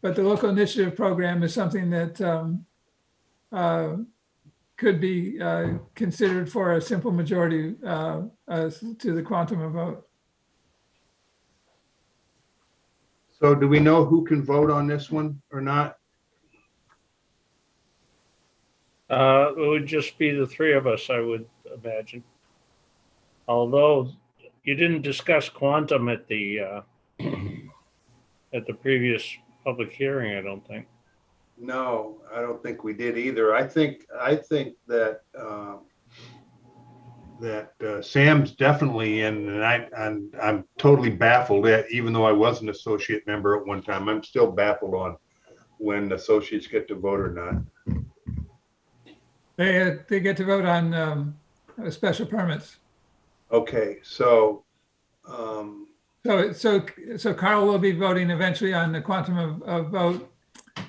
But the local initiative program is something that um, uh, could be uh, considered for a simple majority uh, as to the quantum of vote. So do we know who can vote on this one or not? Uh, it would just be the three of us, I would imagine. Although you didn't discuss quantum at the, uh, at the previous public hearing, I don't think. No, I don't think we did either. I think, I think that, um, that uh, Sam's definitely in and I, and I'm totally baffled at, even though I was an associate member at one time, I'm still baffled on when associates get to vote or not. They, uh, they get to vote on um, uh, special permits. Okay, so, um, So, so, so Carl will be voting eventually on the quantum of, of vote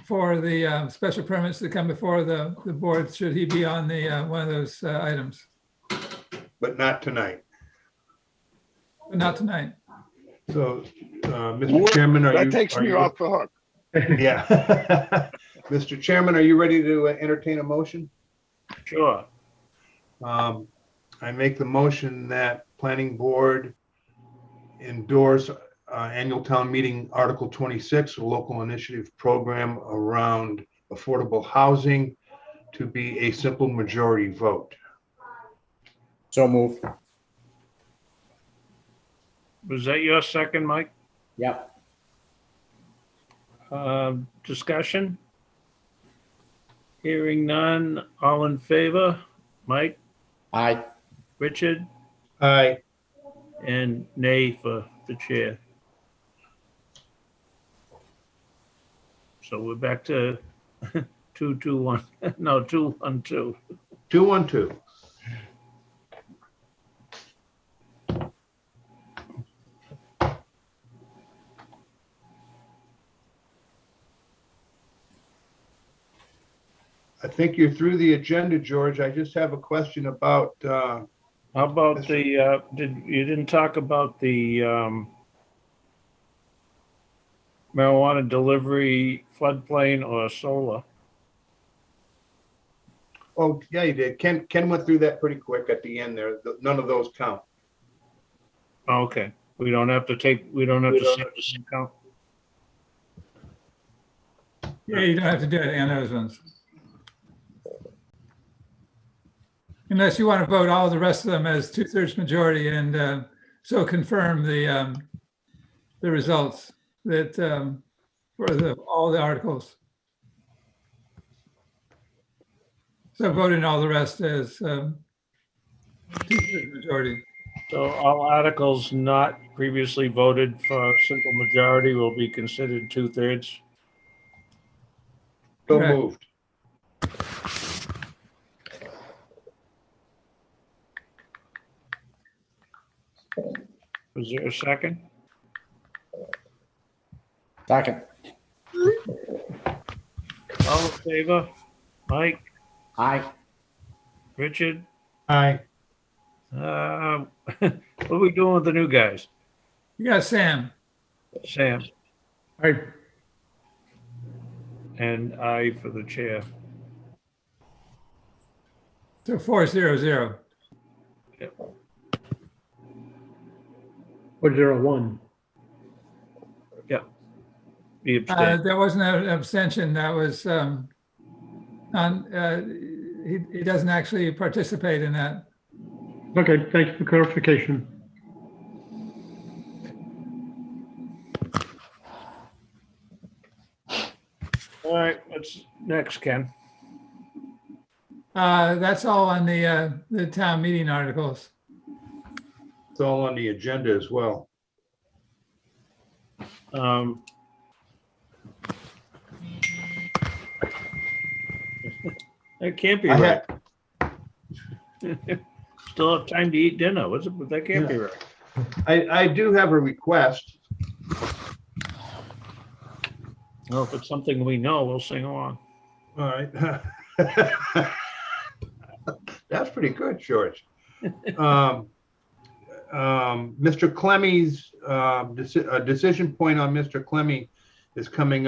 for the uh, special permits that come before the, the board, should he be on the, uh, one of those uh, items. but not tonight. But Not tonight. So, uh, Well, Mr. Chairman, are you? That takes are me you- off the hook. Yeah. Mr. Chairman, are you ready to uh, entertain a motion? Sure. Um, I make the motion that planning board endorse uh, annual town meeting Article 26, a local initiative program around affordable housing to be a simple majority vote. So move. Was that your second, Mike? Yep. Um, discussion? Hearing none, all in favor? Mike, Aye. Richard, Aye. and nay for the chair. So we're back to two, two, one, no, two, one, two. 212. I think you're through the agenda, George. I just have a question about, uh, How about the, uh, did, you didn't talk about the, um, marijuana delivery floodplain or solar? oh, yeah, you did. Ken, Ken went through that pretty quick at the end there. Th- None of those count. Oh, Okay, we don't have to take, we don't have to. count. Yeah, you don't have to do it on those ones. Unless you want to vote all the rest of them as two-thirds majority and uh, so confirm the, um, the results that, um, for the, all the articles. So vote in all the rest as um, two-thirds majority. So all articles not previously voted for simple majority will be considered two-thirds? So Correct. moved. Was there a second? Second. All in favor? Mike, Aye. Richard, Aye. uh, what are we doing with the new guys? You got Sam. Sam, Aye. and I for the chair. So four zero zero. Or zero one. Be Uh, abstained. That wasn't an abstention, that was, um, on, uh, he, he doesn't actually participate in that. Okay, thanks for clarification. Uh, All right, what's next, Ken? Uh, That's all on the, uh, the town meeting articles. It's all on the agenda as well. Um, That can't be I right. had, Still have time to eat dinner, was it? But that can't be right. I, I do have a request. No, if it's something we know, we'll sing along. All right. That's pretty good, George. Um, uh, um, Mr. Clemmy's, um, deci- a decision point on Mr. Clemmy is coming up.